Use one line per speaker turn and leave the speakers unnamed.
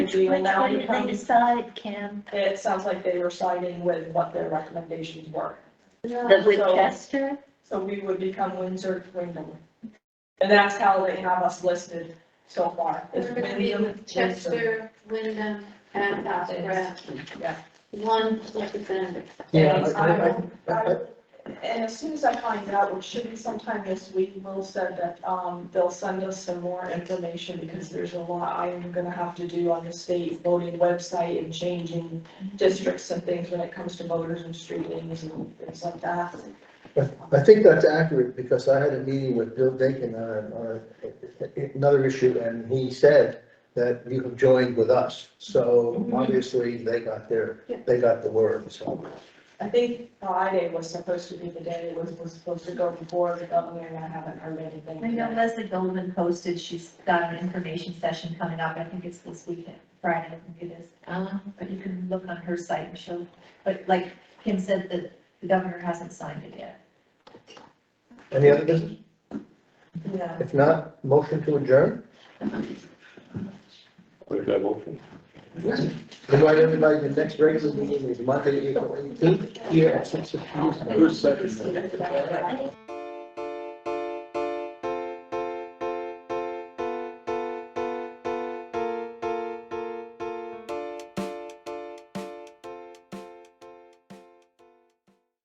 do, and that
What
would
did they
come,
decide, Kim?
it sounds like they were siding with what their recommendations were.
The
So-
Winchester?
So we would become Windsor, Wyndham. And that's how they have us listed so far. is
We're gonna be
Wyndham,
with Chester, Wyndham, and Pastor.
Yeah.
One representative.
Yeah,
Yes,
I- I-
I
I- I-
And as soon as I find out, which should be sometime this week, Will said that, um, they'll send us some more information because there's a lot I am gonna have to do on the state voting website and changing districts and things when it comes to voters and street names and things like that.
I think that's accurate, because I had a meeting with Bill Dakin on, on another issue, and he said that you have joined with us, so
Mhm.
obviously they got their,
Yeah.
they got the word, so.
I think Friday was supposed to be the day it was, was supposed to go before the governor and I haven't heard anything.
I know Leslie Goldman posted, she's got an information session coming up, I think it's this weekend, Friday, I think it is.
Uh-huh.
But you can look on her site and she'll, but like Kim said, that the governor hasn't signed it yet.
Any other business?
Yeah.
If not, motion to adjourn?
Make that motion.
Invite everybody to the next regular meeting, is Monday, April eighteenth, here at six o'clock.
Who's second?
Yeah.